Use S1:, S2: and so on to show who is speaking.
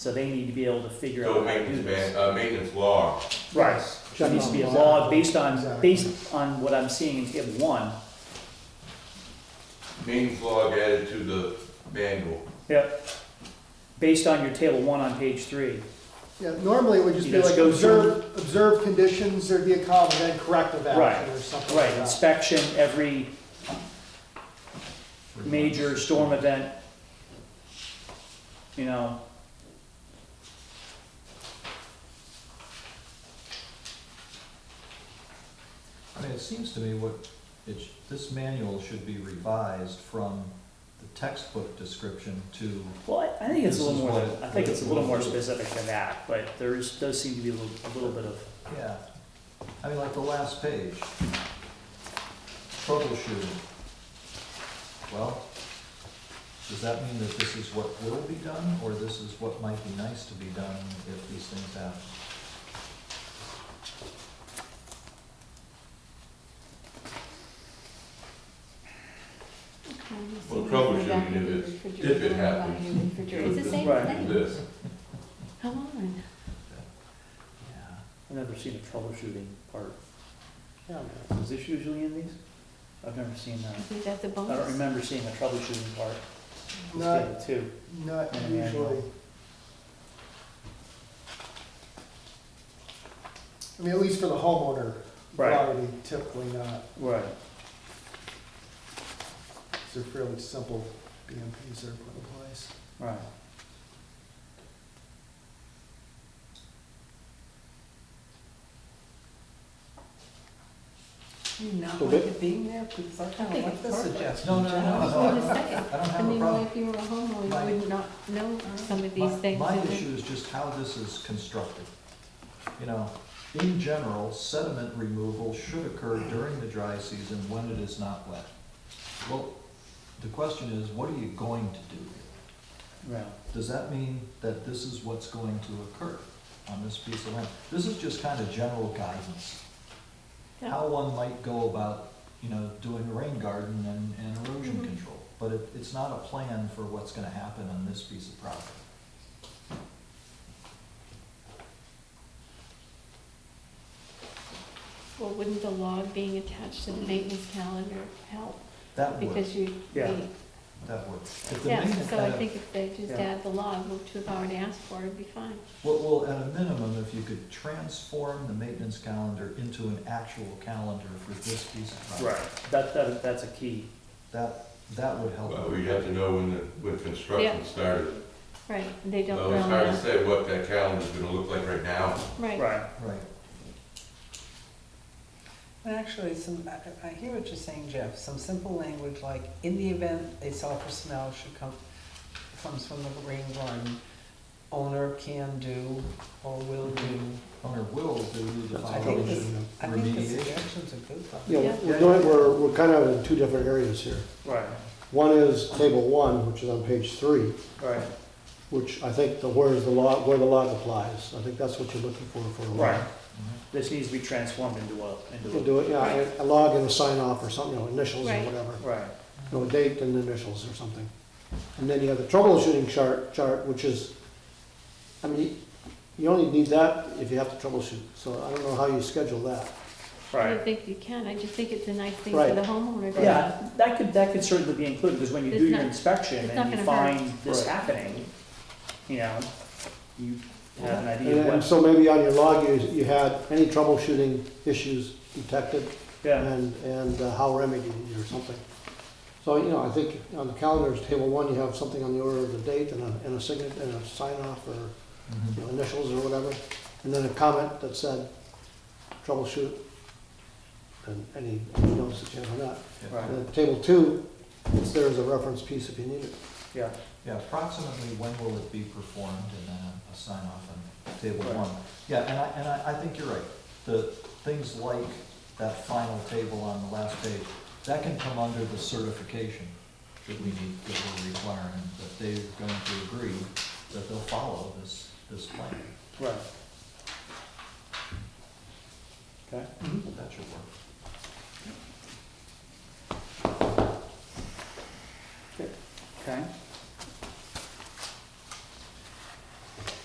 S1: So they need to be able to figure out
S2: So
S1: how to do
S2: maintenance,
S1: this.
S2: man, uh, maintenance log,
S1: Right, so it needs to be a law based on, based on what I'm seeing in table one.
S2: maintenance log added to the manual.
S1: Yep. Based on your table one on page three.
S3: Yeah, normally it would just
S1: You
S3: be
S1: just
S3: like
S1: go
S3: observe, observe conditions, there'd be a comma, then corrective
S1: Right,
S3: action or something like
S1: Right,
S3: that.
S1: inspection every major storm event. You know,
S4: I mean, it seems to me what, it's, this manual should be revised from the textbook description to,
S1: well, I I think it's a
S4: This
S1: little
S4: is
S1: more,
S4: what
S1: than-
S4: it-
S1: I think it's a little more
S4: what it-
S1: specific than that, but there is, does seem to be a little, a little bit of,
S4: yeah. I mean, like the last page. Troubleshooting. Well, does that mean that this is what will be done, or this is what might be nice to be done if these things happen?
S2: Well, troubleshooting if it's- if it happens.
S5: It's the same
S1: Right.
S5: thing.
S2: This,
S5: Come on.
S4: Yeah.
S1: I've never seen a troubleshooting part. Is this usually in these? I've never seen that.
S5: Is that the
S1: I don't
S5: bonus?
S1: remember seeing a troubleshooting part. It's
S3: Not-
S1: table two.
S3: Not
S1: Yeah, yeah,
S3: usually. I mean, at least for the homeowner
S1: Right.
S3: property, typically not,
S1: Right.
S3: because they're fairly simple BMPs that are put in place.
S1: Right.
S6: Not
S7: So
S6: like
S7: that-
S6: it being there, because I kind of
S5: think
S6: like
S5: it's
S6: the
S5: perfect.
S6: suggestion.
S4: No, no, no,
S5: I was
S4: no,
S5: gonna
S4: I
S5: say,
S4: don't
S5: I
S4: have a problem.
S5: mean, well, if you were a homeowner,
S4: My-
S5: you would not know some of
S4: My-
S5: these things.
S4: My
S5: and then-
S4: issue is just how this is constructed. You know, in general, sediment removal should occur during the dry season when it is not wet. Well, the question is, what are you going to do?
S1: Right.
S4: Does that mean that this is what's going to occur on this piece of land? This is just kind of general guidance, how one might go about, you know, doing a rain garden and, and erosion
S5: Mhm.
S4: control. But it, it's not a plan for what's gonna happen on this piece of property.
S5: Well, wouldn't the log being attached to the maintenance calendar help?
S4: That would.
S5: Because you,
S1: Yeah.
S5: you-
S4: That works. If the
S5: yeah,
S4: maintenance
S5: so I
S4: had a-
S5: think if they just
S1: Yeah.
S5: add the log, which we've already asked for, it'd be fine.
S4: Well, well, at a minimum, if you could transform the maintenance calendar into an actual calendar for this piece of property.
S1: Right. That, that, that's a key.
S4: That, that would help.
S2: well, we'd have to know when the, when construction
S5: Yeah.
S2: started.
S5: Right, and they don't
S2: Well,
S5: know
S2: it's hard to
S5: that.
S2: say what that calendar's gonna look like right now.
S5: Right,
S1: Right.
S4: Right.
S6: And Actually, some, I, I hear what you're saying, Jeff, some simple language like, in the event a sulfur smell should come, comes from the rain garden, owner can do or will do.
S4: Owner will do the
S6: I think this,
S4: following
S6: I think the
S4: remediation.
S6: suggestions are good. though.
S7: Yeah,
S5: Yeah.
S7: we're doing, we're, we're kind of in two different areas here.
S1: Right.
S7: One is table one, which is on page three,
S1: Right.
S7: which I think the, where's the law, where the law applies. I think that's what you're looking for, for a law.
S1: Right. This needs to be transformed into a,
S7: We'll
S1: into
S7: do it, yeah, a log and a sign off or something, you know, initials or
S5: Right.
S7: whatever.
S1: a, right.
S7: You know, a date and initials or something. And then you have the troubleshooting chart, chart, which is, I mean, you only need that if you have to troubleshoot. So I don't know how you schedule that.
S5: I don't
S1: Right.
S5: think you can, I just think it's a nice thing for
S7: Right.
S5: the homeowner to have.
S1: Yeah, that could, that could certainly be included, because when you
S5: It's
S1: do your
S5: not-
S1: inspection
S5: it's not
S1: and you
S5: gonna hurt.
S1: find this
S7: Right.
S1: happening, you know, you have an
S7: And
S1: idea of
S7: and
S1: what,
S7: so maybe on your log, you, you had any troubleshooting issues detected,
S1: yeah,
S7: and, and uh, how remedied or something. So, you know, I think on the calendars, table one, you have something on the order of the date and a, and a signet, and a sign off or you
S4: Mhm.
S7: know, initials or whatever. And then a comment that said troubleshoot and any notes that you have on that.
S4: Yeah.
S1: right,
S7: And then table two, it's there as a reference piece if you need it.
S1: yeah,
S4: Yeah, approximately when will it be performed and then a sign off on table
S1: Right.
S4: one. Yeah, and I, and I, I think you're right. The things like that final table on the last page, that can come under the certification that we need, that we're requiring, that they're going to agree that they'll follow this, this plan.
S1: right. Okay,
S4: That should work.